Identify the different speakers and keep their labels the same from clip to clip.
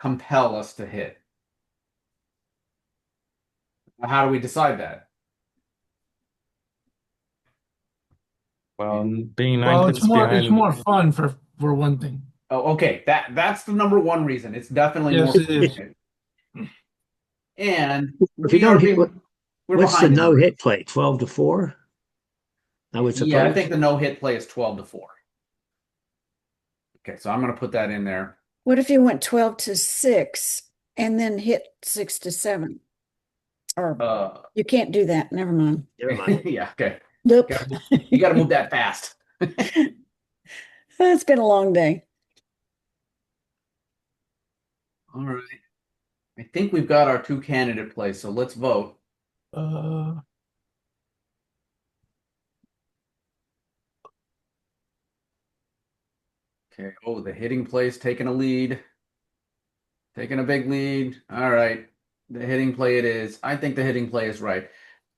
Speaker 1: compel us to hit. How do we decide that?
Speaker 2: Well, being nine
Speaker 3: Well, it's
Speaker 2: pips
Speaker 3: more, it's
Speaker 2: behind-
Speaker 3: more fun for, for one thing.
Speaker 1: Oh, okay, that, that's the number one reason, it's definitely more.
Speaker 3: Yes, it is.
Speaker 1: And.
Speaker 4: If
Speaker 1: we
Speaker 4: you
Speaker 1: are
Speaker 4: don't hit,
Speaker 1: being-
Speaker 4: what-
Speaker 1: we're
Speaker 4: what's the
Speaker 1: behind them.
Speaker 4: no hit play? Twelve to four? I would
Speaker 1: Yeah, I
Speaker 4: suppose.
Speaker 1: think the no hit play is twelve to four. Okay, so I'm gonna put that in there.
Speaker 5: What if you went twelve to six and then hit six to seven? Or
Speaker 1: Uh,
Speaker 5: you can't do that, never mind.
Speaker 4: Never mind.
Speaker 1: yeah, okay.
Speaker 5: Nope,
Speaker 1: Gotta move- You gotta move that fast.
Speaker 5: it's been a long day.
Speaker 1: All right. I think we've got our two candidate plays, so let's vote.
Speaker 3: Uh,
Speaker 1: Okay, oh, the hitting play's taking a lead. Taking a big lead. All right. The hitting play it is. I think the hitting play is right.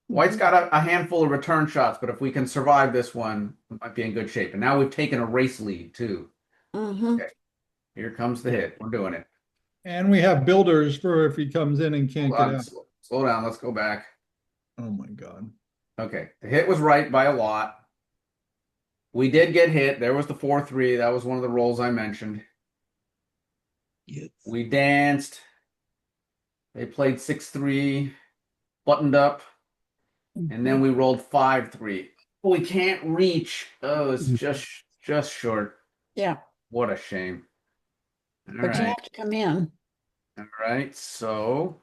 Speaker 1: White's got a, a handful of return shots, but if we can survive this one, we might be in good shape. And now we've taken a race lead too.
Speaker 5: Mm-hmm.
Speaker 1: Here comes the hit. We're doing it.
Speaker 6: And we have builders for if he comes in and can't
Speaker 1: Hold
Speaker 6: get
Speaker 1: on,
Speaker 6: out.
Speaker 1: slow, slow down. Let's go back.
Speaker 6: Oh my god.
Speaker 1: Okay, the hit was right by a lot. We did get hit. There was the four three. That was one of the rolls I mentioned.
Speaker 4: Yes.
Speaker 1: We danced. They played six three, buttoned up, and then we rolled five three. We can't reach. Oh, it's just just short.
Speaker 5: Yeah.
Speaker 1: What a shame. All
Speaker 5: But you
Speaker 1: right.
Speaker 5: have to come in.
Speaker 1: All right. So,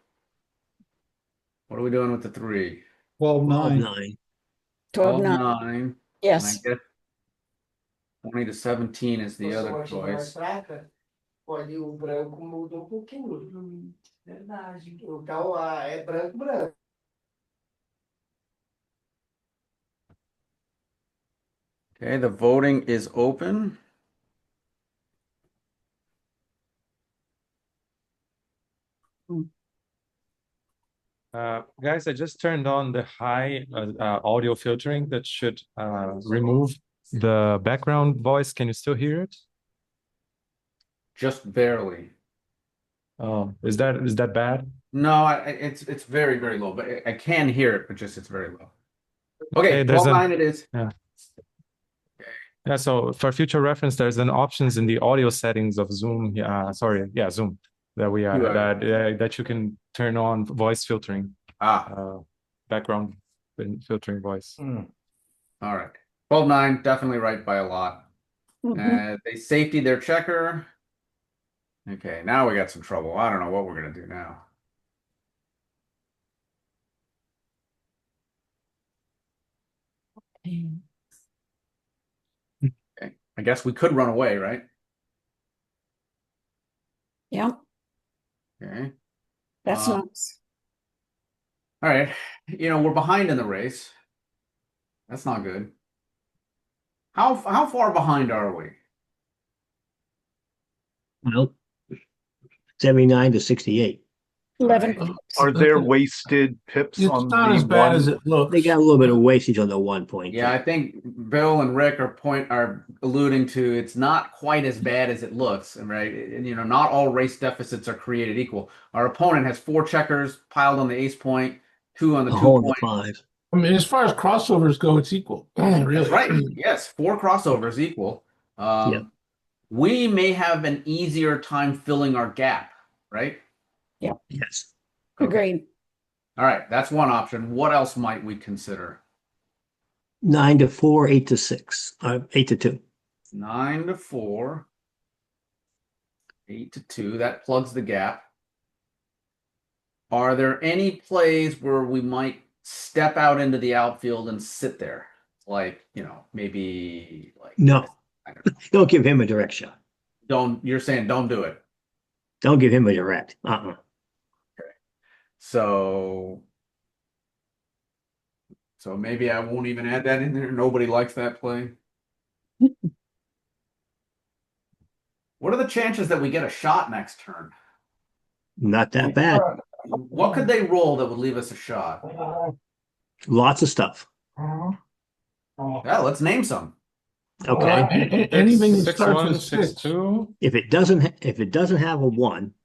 Speaker 1: what are we doing with the three?
Speaker 6: Twelve
Speaker 4: Twelve,
Speaker 6: nine.
Speaker 4: nine.
Speaker 5: Twelve nine.
Speaker 1: nine. And I
Speaker 5: yes.
Speaker 1: guess Twenty to seventeen is the
Speaker 7: Fosse
Speaker 1: other
Speaker 7: uma ajuda mais
Speaker 1: choice.
Speaker 7: fraca, olha, o branco mudou um pouquinho. Verdade. Então, ah, é branco, branco.
Speaker 1: Okay, the voting is open.
Speaker 2: Uh, guys, I just turned on the high uh, uh, audio filtering that should uh, remove the background voice. Can you still hear it?
Speaker 1: Just barely.
Speaker 2: Oh, is that is that bad?
Speaker 1: No, I, I- it's, it's very, very low, but I- I can hear it, but just it's very low. Okay,
Speaker 2: Okay, there's
Speaker 1: twelve
Speaker 2: an-
Speaker 1: nine it is.
Speaker 2: Yeah. So for future reference, there's an options in the audio settings of Zoom. Yeah. uh, sorry. Yeah, Zoom. That we are
Speaker 1: Yeah.
Speaker 2: that uh, that you can turn on voice filtering,
Speaker 1: Ah,
Speaker 2: uh, background fil- filtering voice.
Speaker 1: all right. Twelve nine, definitely right by a lot.
Speaker 5: Mhm.
Speaker 1: Uh, they safety their checker. Okay, now we got some trouble. I don't know what we're gonna do now.
Speaker 5: Mm-hmm.
Speaker 1: I guess we could run away, right?
Speaker 5: Yeah,
Speaker 1: Okay.
Speaker 5: that's
Speaker 1: Uh,
Speaker 5: nice.
Speaker 1: All right, you know, we're behind in the race. That's not good. How how far behind are we?
Speaker 4: Well, seventy-nine to sixty-eight.
Speaker 5: Eleven.
Speaker 1: right.
Speaker 5: points.
Speaker 8: Are there
Speaker 3: Okay.
Speaker 8: wasted pips
Speaker 3: It's
Speaker 8: on
Speaker 3: not
Speaker 8: the
Speaker 3: as bad
Speaker 8: one-
Speaker 3: as it looks.
Speaker 4: They got a little bit of wastage on the one point.
Speaker 1: Yeah, I think Bill and Rick are point are alluding to it's not quite as bad as it looks, and right? And you know, not all race deficits are created equal. Our opponent has four checkers piled on the ace point, two on the
Speaker 4: A
Speaker 1: two
Speaker 4: hole in the
Speaker 1: point.
Speaker 4: five.
Speaker 3: I mean, as far as crossovers go, it's equal, really.
Speaker 1: That's right. Yes, four crossovers equal. Um,
Speaker 4: Yeah.
Speaker 1: We may have an easier time filling our gap, right?
Speaker 4: Yes.
Speaker 5: Agreed.
Speaker 1: All right, that's one option. What else might we consider?
Speaker 4: Nine to four, eight to six, uh, eight to two.
Speaker 1: Nine to four. Eight to two. That plugs the gap. Are there any plays where we might step out into the outfield and sit there? Like, you know, maybe like
Speaker 4: No.
Speaker 1: I don't know.
Speaker 4: Don't give him a direct shot.
Speaker 1: Don't you're saying don't do it.
Speaker 4: Don't give him a direct. Uh-uh.
Speaker 1: So so maybe I won't even add that in there. Nobody likes that play. What are the chances that we get a shot next turn?
Speaker 4: Not that bad.
Speaker 1: What could they roll that would leave us a shot?
Speaker 4: Lots of stuff.
Speaker 1: Yeah, let's name some.
Speaker 4: Okay.
Speaker 3: A- a- Anything that
Speaker 2: Six
Speaker 3: starts
Speaker 2: one,
Speaker 3: with
Speaker 2: six
Speaker 3: six.
Speaker 2: two.
Speaker 4: If it doesn't, ha- if it doesn't have a one,